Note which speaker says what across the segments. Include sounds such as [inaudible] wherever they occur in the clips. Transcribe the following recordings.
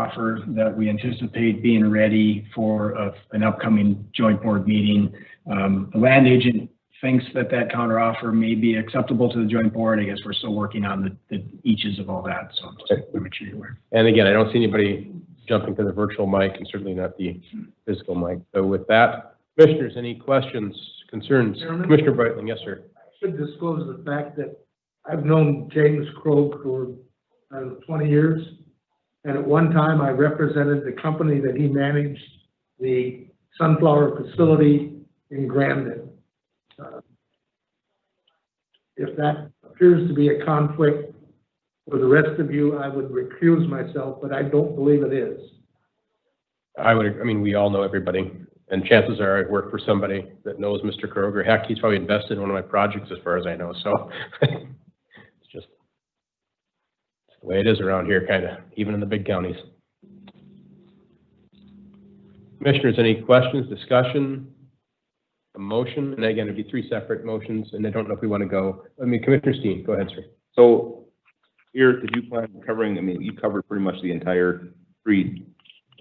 Speaker 1: offer that we anticipate being ready for a- an upcoming joint board meeting. Um, The land agent thinks that that counter offer may be acceptable to the joint board. I guess we're still working on the- the eaches of all that, so just want to make sure you're aware.
Speaker 2: And again, I don't see anybody jumping to the virtual mic and certainly not the physical mic. So with that, commissioners, any questions, concerns?
Speaker 3: Chairman?
Speaker 2: Commissioner Brightling, yes, sir.
Speaker 3: should disclose the fact that I've known James Krog for, I don't know, twenty years. And at one time, I represented the company that he managed the sunflower facility in Grandin. Uh, If that appears to be a conflict with the rest of you, I would recuse myself, but I don't believe it is.
Speaker 2: I would, I mean, we all know everybody, and chances are I work for somebody that knows Mr. Kroger. Heck, he's probably invested in one of my projects as far as I know, so. [laughs] It's just it's the way it is around here, kind of, even in the big counties. Commissioners, any questions, discussion, a motion? And again, it'd be three separate motions, and I don't know if we want to go, I mean, Commissioner Steen, go ahead, sir.
Speaker 4: So, Eric, did you plan on covering, I mean, you covered pretty much the entire three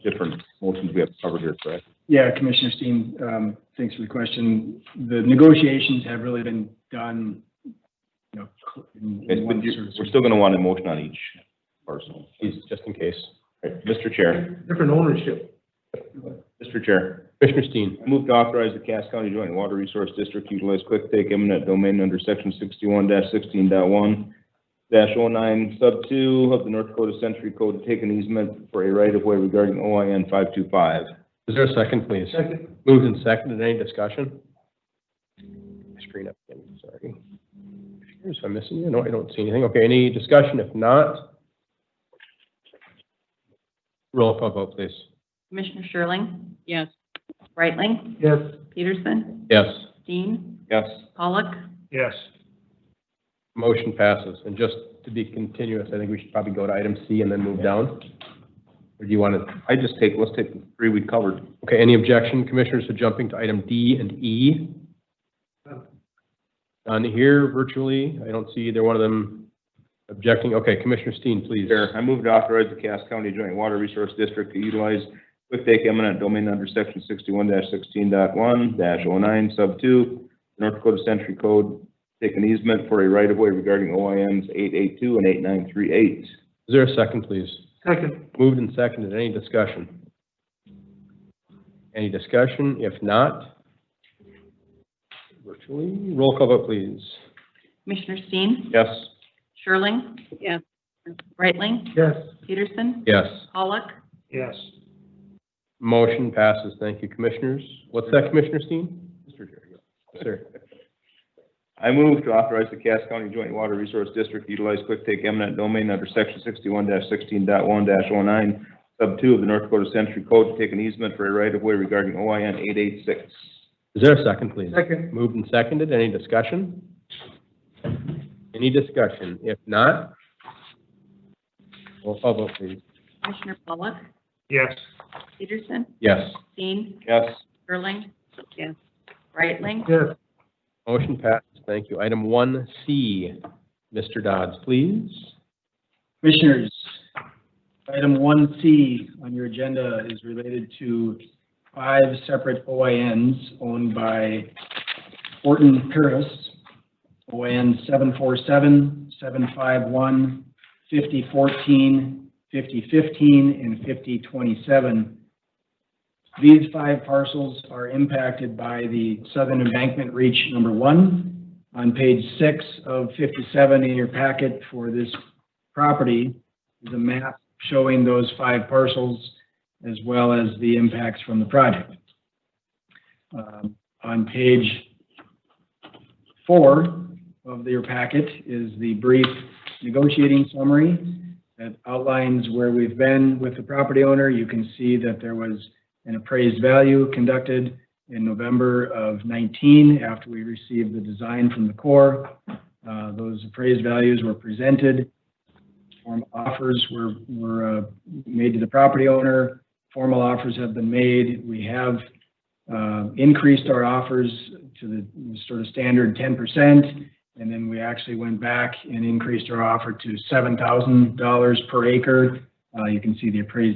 Speaker 4: different motions we have covered here, correct?
Speaker 1: Yeah, Commissioner Steen, um, thanks for the question. The negotiations have really been done, you know, in-
Speaker 4: Okay,
Speaker 1: in
Speaker 4: But
Speaker 1: one
Speaker 4: you're,
Speaker 1: sort of-
Speaker 4: we're still gonna want a motion on each parcel.
Speaker 2: Please, just in case.
Speaker 4: Right, Mr. Chair,
Speaker 3: Different ownership.
Speaker 4: Mr. Chair,
Speaker 2: Commissioner Steen,
Speaker 4: I move to authorize the Cass County Joint Water Resource District to utilize quick take eminent domain under section sixty-one dash sixteen dot one dash oh nine sub two of the North Dakota Century Code to take an easement for a right-of-way regarding OIN five two five.
Speaker 2: is there a second, please?
Speaker 3: Second,
Speaker 2: Moved and seconded, any discussion? Screen up again, sorry. Here's, I'm missing you, no, I don't see anything, okay, any discussion, if not? Roll call vote, please.
Speaker 5: Commissioner Sherling?
Speaker 6: Yes.
Speaker 5: Brightling?
Speaker 3: yes.
Speaker 5: Peterson?
Speaker 2: Yes,
Speaker 5: Dean?
Speaker 4: Yes,
Speaker 5: Pollock?
Speaker 3: Yes.
Speaker 2: motion passes, and just to be continuous, I think we should probably go to item C and then move down. Or do you want to,
Speaker 4: I just take, let's take the three we covered.
Speaker 2: okay, any objection, commissioners, to jumping to item D and E?
Speaker 3: Uh,
Speaker 2: On here virtually, I don't see either one of them objecting, okay, Commissioner Steen, please.
Speaker 4: Chair, I move to authorize the Cass County Joint Water Resource District to utilize quick take eminent domain under section sixty-one sixteen dot one dash oh nine sub two, North Dakota Century Code, take an easement for a right-of-way regarding OINs eight eight two and eight nine three eight.
Speaker 2: Is there a second, please?
Speaker 3: Second,
Speaker 2: Moved and seconded, any discussion? Any discussion? If not, virtually, roll call vote, please.
Speaker 5: Commissioner Steen?
Speaker 2: Yes.
Speaker 5: Sherling?
Speaker 6: Yes.
Speaker 5: Brightling?
Speaker 3: yes.
Speaker 5: Peterson?
Speaker 2: Yes.
Speaker 5: Pollock?
Speaker 3: Yes.
Speaker 2: Motion passes. Thank you, commissioners. What's that, Commissioner Steen?
Speaker 4: Mr. Chair, yeah.
Speaker 2: Sir,
Speaker 4: I move to authorize the Cass County Joint Water Resource District to utilize quick take eminent domain under section sixty-one sixteen dot one dash oh nine sub two of the North Dakota Century Code to take an easement for a right-of-way regarding OIN eight eight six.
Speaker 2: is there a second, please?
Speaker 3: Second,
Speaker 2: Moved and seconded, any discussion? Any discussion? If not, roll call vote, please.
Speaker 5: Commissioner Pollock?
Speaker 3: yes.
Speaker 5: Peterson?
Speaker 2: Yes.
Speaker 5: Dean?
Speaker 4: Yes.
Speaker 5: Sherling?
Speaker 6: Yes.
Speaker 5: Brightling?
Speaker 3: Yes.
Speaker 2: Motion passes. Thank you. Item one C, Mr. Dodds, please.
Speaker 1: Commissioners, item one C on your agenda is related to five separate OINs owned by Orton Paris. OIN 747, 751, 5014, 5015, and 5027. These five parcels are impacted by the Southern Embankment Reach Number One on page six of fifty-seven in your packet for this property is a map showing those five parcels as well as the impacts from the project. Um, On page four of your packet is the brief negotiating summary that outlines where we've been with the property owner. You can see that there was an appraised value conducted in November of 19 after we received the design from the Corps. Uh, Those appraised values were presented formal offers were, were uh, made to the property owner. Formal offers have been made. We have uh, increased our offers to the sort of standard ten percent. And then we actually went back and increased our offer to seven thousand dollars per acre. Uh, You can see the appraised